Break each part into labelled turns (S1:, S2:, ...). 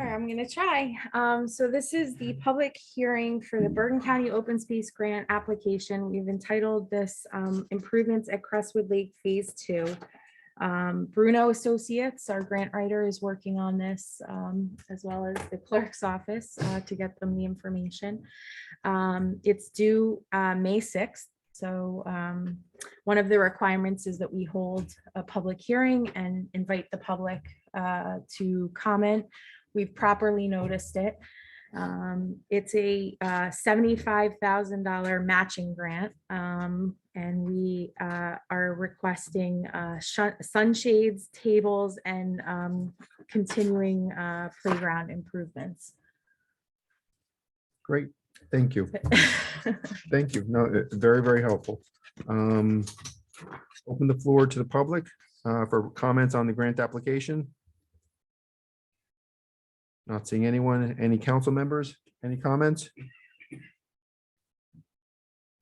S1: I'm gonna try. Um, so this is the public hearing for the Bergen County Open Space Grant application. We've entitled this um, improvements at Crestwood Lake Phase Two. Um, Bruno Associates, our grant writer, is working on this um, as well as the clerk's office uh, to get them the information. Um, it's due uh, May sixth, so um, one of the requirements is that we hold a public hearing and invite the public uh, to comment. We've properly noticed it. Um, It's a uh, $75,000 matching grant. um, And we uh, are requesting uh, shun- sunshades, tables, and um, continuing uh, playground improvements.
S2: Great, thank you, thank you. No, uh, very, very helpful. Um, Open the floor to the public uh, for comments on the grant application. Not seeing anyone, any council members, any comments?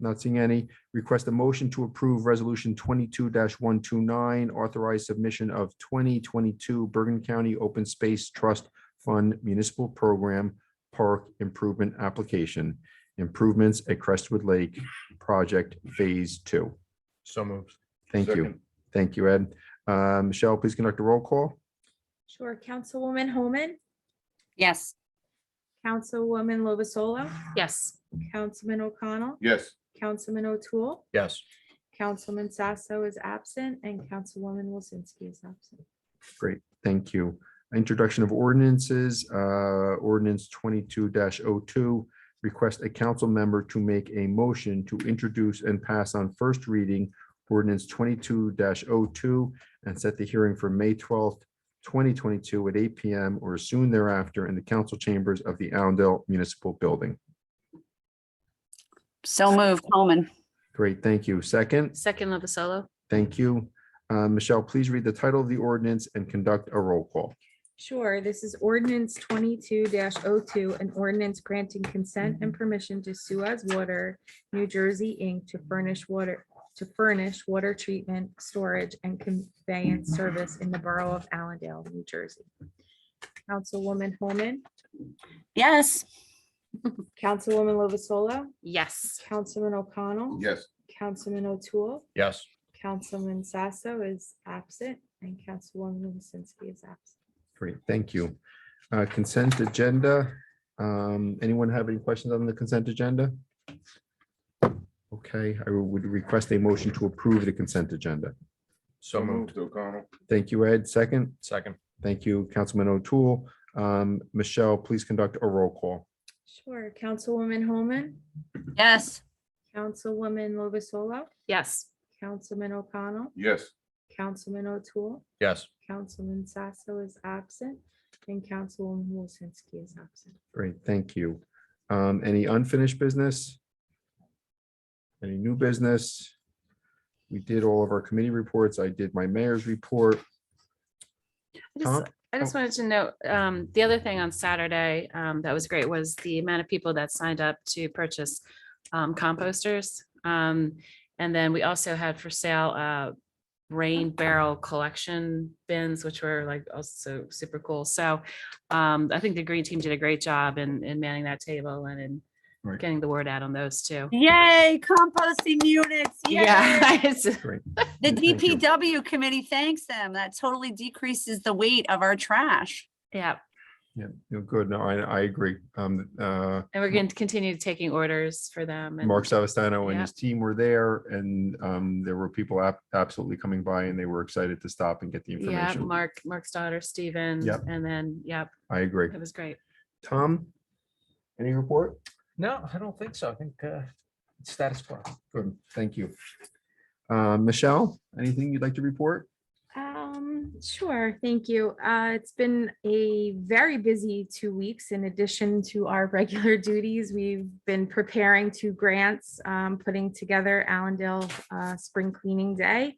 S2: Not seeing any. Request a motion to approve Resolution twenty-two one two nine, authorized submission of twenty twenty-two Bergen County Open Space Trust Fund Municipal Program Park Improvement Application, improvements at Crestwood Lake Project Phase Two.
S3: So moved.
S2: Thank you.
S3: Second.
S2: Thank you, Ed. Uh, Michelle, please conduct a roll call.
S1: Sure, Councilwoman Homan,
S4: Yes.
S1: Councilwoman Lovasolo,
S4: Yes.
S1: Councilman O'Connell,
S3: Yes.
S1: Councilman O'Toole,
S3: Yes.
S1: Councilman Sasso is absent and Councilwoman Wilsinski is absent.
S2: Great, thank you. Introduction of ordinances, uh, ordinance twenty-two 2 Request a council member to make a motion to introduce and pass on first reading ordinance twenty-two 2 and set the hearing for May twelfth, twenty twenty-two at eight PM or soon thereafter in the council chambers of the Allendale Municipal Building.
S4: So moved, Holman.
S2: Great, thank you. Second,
S4: Second Lovasolo?
S2: thank you. Uh, Michelle, please read the title of the ordinance and conduct a roll call.
S1: Sure, this is ordinance twenty-two 2 an ordinance granting consent and permission to Suez Water, New Jersey, Inc. to furnish water, to furnish water treatment, storage, and conveyance service in the borough of Allendale, New Jersey. Councilwoman Holman,
S4: Yes.
S1: Councilwoman Lovasolo,
S4: Yes.
S1: Councilman O'Connell,
S3: Yes.
S1: Councilman O'Toole,
S3: Yes.
S1: Councilman Sasso is absent and Councilwoman Wozinski is absent.
S2: Great, thank you. Uh, Consent agenda. Um, Anyone have any questions on the consent agenda? Okay, I would request a motion to approve the consent agenda.
S3: So moved. O'Connell.
S2: Thank you, Ed. Second,
S3: Second.
S2: thank you, Councilman O'Toole. Um, Michelle, please conduct a roll call.
S1: Sure, Councilwoman Homan,
S4: Yes.
S1: Councilwoman Lovasolo,
S4: Yes.
S1: Councilman O'Connell,
S3: Yes.
S1: Councilman O'Toole,
S3: Yes.
S1: Councilman Sasso is absent, and Councilwoman Wozinski is absent.
S2: Great, thank you. Um, Any unfinished business? Any new business? We did all of our committee reports. I did my mayor's report.
S5: I just,
S2: Tom?
S5: I just
S2: Oh.
S5: wanted to note, um, the other thing on Saturday, um, that was great was the amount of people that signed up to purchase, um, composters. Um, and then we also had for sale, uh, rain barrel collection bins, which were like also super cool. So, um, I think the green team did a great job in, in manning that table and in
S2: Right.
S5: getting the word out on those too.
S4: Yay, composting units.
S5: Yeah.
S4: Yeah.
S5: it's-
S4: The
S2: Thank you.
S4: DPW committee thanks them. That totally decreases the weight of our trash.
S5: Yeah.
S2: Yeah, no, good. No, I, I agree. Um, uh,
S5: And we're going to continue taking orders for them. and-
S2: Mark Savastano and
S5: Yeah.
S2: his team were there and um, there were people ab- absolutely coming by and they were excited to stop and get the
S5: Yeah,
S2: information.
S5: Mark, Mark's daughter, Steven.
S2: Yep.
S5: And then, yep,
S2: I agree.
S5: it was great.
S2: Tom? Any report?
S6: No, I don't think so. I think uh, it's status quo.
S2: Good, thank you. Uh, Michelle, anything you'd like to report?
S1: Um, sure, thank you. Uh, it's been a very busy two weeks in addition to our regular duties. We've been preparing two grants, um, putting together Allendale, uh, Spring Cleaning Day,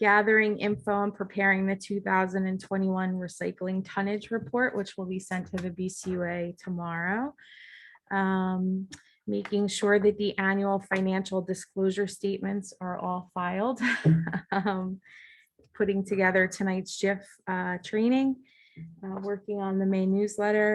S1: gathering info and preparing the two thousand and twenty-one recycling tonnage report, which will be sent to the BCUA tomorrow. Um, making sure that the annual financial disclosure statements are all filed. Um, putting together tonight's GIF uh, training, uh, working on the May newsletter,